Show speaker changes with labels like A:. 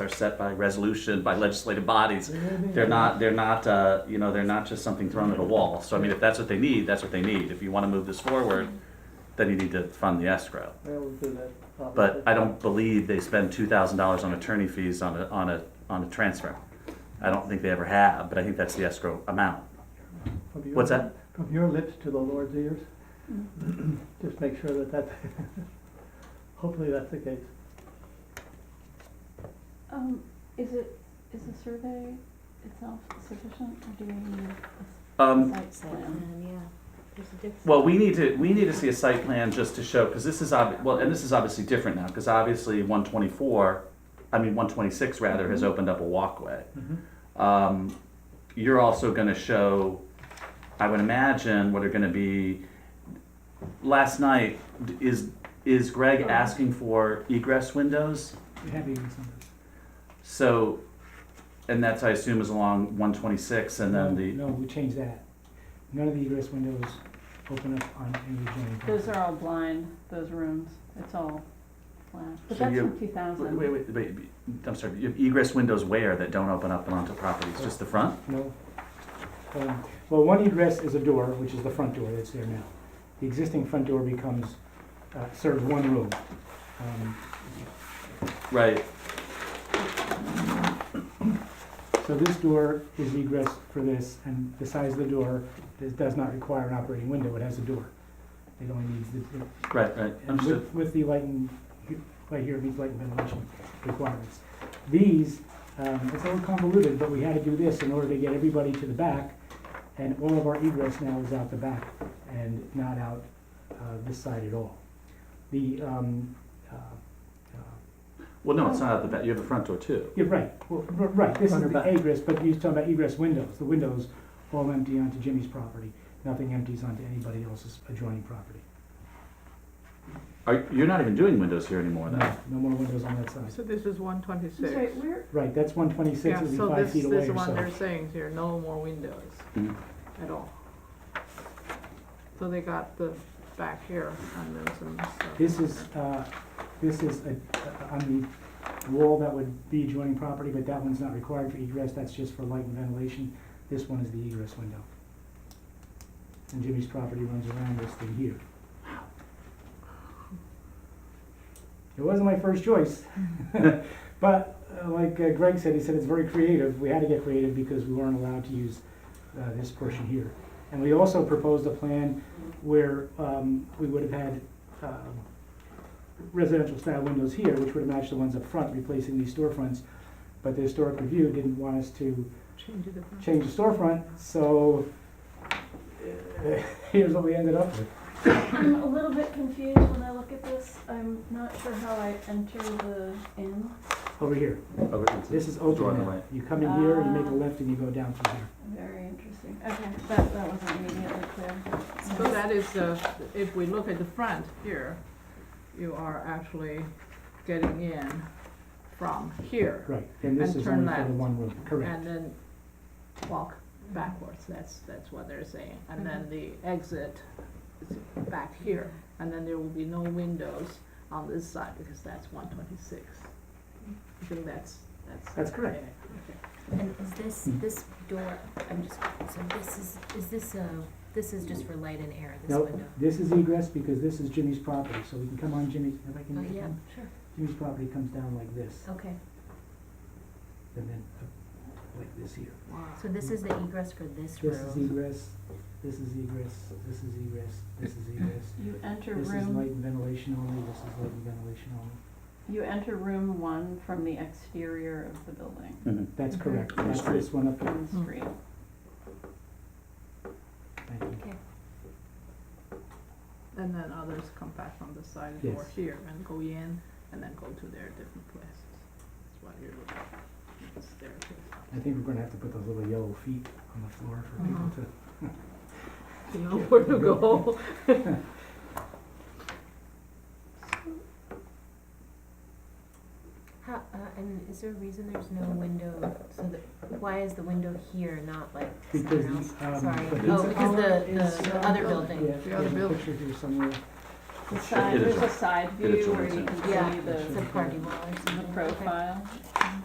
A: are set by resolution, by legislative bodies. They're not, they're not, uh, you know, they're not just something thrown at a wall. So I mean, if that's what they need, that's what they need. If you want to move this forward, then you need to fund the escrow.
B: Yeah, we'll do that.
A: But I don't believe they spend two thousand dollars on attorney fees on a, on a, on a transfer. I don't think they ever have, but I think that's the escrow amount.
B: From your-
A: What's that?
B: From your lips to the Lord's ears. Just make sure that that, hopefully that's the case.
C: Um, is it, is the survey itself sufficient or do we need a
A: Um,
C: site plan?
D: Um, yeah, there's a difference.
A: Well, we need to, we need to see a site plan just to show, because this is obvi, well, and this is obviously different now, because obviously one twenty-four, I mean, one twenty-six rather, has opened up a walkway. Um, you're also gonna show, I would imagine, what are gonna be, last night, d- is, is Greg asking for egress windows?
B: We have even some.
A: So, and that's, I assume, is along one twenty-six and then the,
E: No, we changed that. None of the egress windows open up on any adjoining
C: Those
E: property.
C: are all blind, those rooms, it's all flat, but
A: So
C: that's
A: you-
C: in two
A: Wait,
C: thousand.
A: wait, wait, wait, I'm sorry, you have egress windows where that don't open up and onto properties, just the front?
E: No. Um, Well, one egress is a door, which is the front door that's there now. The existing front door becomes, uh, serves one room. Um,
A: Right.
E: So this door is egress for this, and the size of the door, this does not require an operating window, it has a door. It only needs the,
A: Right, right,
E: And
A: understood.
E: with, with the light and, right here, these light and ventilation requirements. These, um, it's a little convoluted, but we had to do this in order to get everybody to the back, and all of our egress now is out the back and not out, uh, this side at all. The, um, uh, uh,
A: Well, no, it's not at the back, you have a front door too.
E: yeah, right, well, r- right, this is
B: Front or
E: the
B: back?
E: egress, but you're talking about egress windows, the windows all empty onto Jimmy's property, nothing empties onto anybody else's adjoining property.
A: Are, you're not even doing windows here anymore then?
E: No, no more windows on that side.
F: So this is one twenty-six.
C: Sorry, where,
E: Right, that's one twenty-six,
F: Yeah,
E: it'd be
F: so
E: five
F: this,
E: feet
F: this
E: away
F: is
E: or
F: one
E: so.
F: they're saying here, no more windows
A: Mhm.
F: at all. So they got the back here on those and stuff.
E: This is, uh, this is a- a- on the wall that would be adjoining property, but that one's not required for egress, that's just for light and ventilation. This one is the egress window. And Jimmy's property runs around this thing here. It wasn't my first choice, but uh, like uh, Greg said, he said it's very creative. We had to get creative because we weren't allowed to use uh, this portion here. And we also proposed a plan where um, we would have had um, residential style windows here, which would have matched the ones up front, replacing these storefronts. But the historic review didn't want us to
F: Change it. up.
E: change the storefront, so uh, here's what we ended up with.
C: I'm a little bit confused when I look at this, I'm not sure how I enter the inn,
E: Over here,
A: Over-
E: this is
A: Door on the
E: open now.
A: right.
E: You come in here, you make
C: Ah.
E: a left, and you go down from here.
C: very interesting, okay, that, that wasn't immediately clear.
F: So that is, uh, if we look at the front here, you are actually getting in from here.
E: Right, and this
F: And
E: is
F: turn
E: only for
F: left.
E: the one room, correct.
F: And then walk backwards, that's, that's what they're saying. And then the exit is back here. And then there will be no windows on this side because that's one twenty-six. I think that's, that's.
E: That's correct.
D: And is this, this door, I'm just, so this is, is this a, this is just for light and air, this
E: Nope,
D: window?
E: this is egress because this is Jimmy's property, so we can come on Jimmy's, if I can
D: Oh,
E: make it
D: yeah,
E: come.
D: sure,
E: Jimmy's property comes down like this,
D: okay.
E: and then up like this here.
F: Wow.
D: So this is the egress for this
E: This is
D: room?
E: egress, this is egress, this is egress, this is egress.
C: You enter
E: This is light
C: room,
E: and ventilation only, this is light and ventilation only.
C: you enter room one from the exterior of the building,
A: Mhm.
E: That's
D: Mhm.
E: correct,
A: On the
E: that's this one up here.
C: from the street.
E: Thank you.
D: Okay,
F: And then others come back from the side
E: Yes.
F: or here and go in and then go to their different places. That's what you're looking at, staircase.
E: I think we're gonna have to put those little yellow feet on the floor for
D: Uh-huh.
E: people
F: Mhm.
E: to.
F: You know where to go.
D: how, uh, and is there a reason there's no window, so the, why is the window here, not like
E: Because
D: somewhere else?
E: the,
D: Sorry,
E: um, the
D: oh,
E: pizza
D: because
E: parlor
D: the,
E: is,
D: the, the
E: uh,
D: other building,
E: Yeah,
F: other
E: there's a
F: building.
E: picture here somewhere.
C: The side,
A: it
C: there's a
A: adjoins-
C: side
A: it
C: view where
A: adjoins
C: you
A: it.
C: can
D: Yeah,
C: see
D: it's a
C: the,
D: party wall or
C: the
D: something. okay.
C: profile.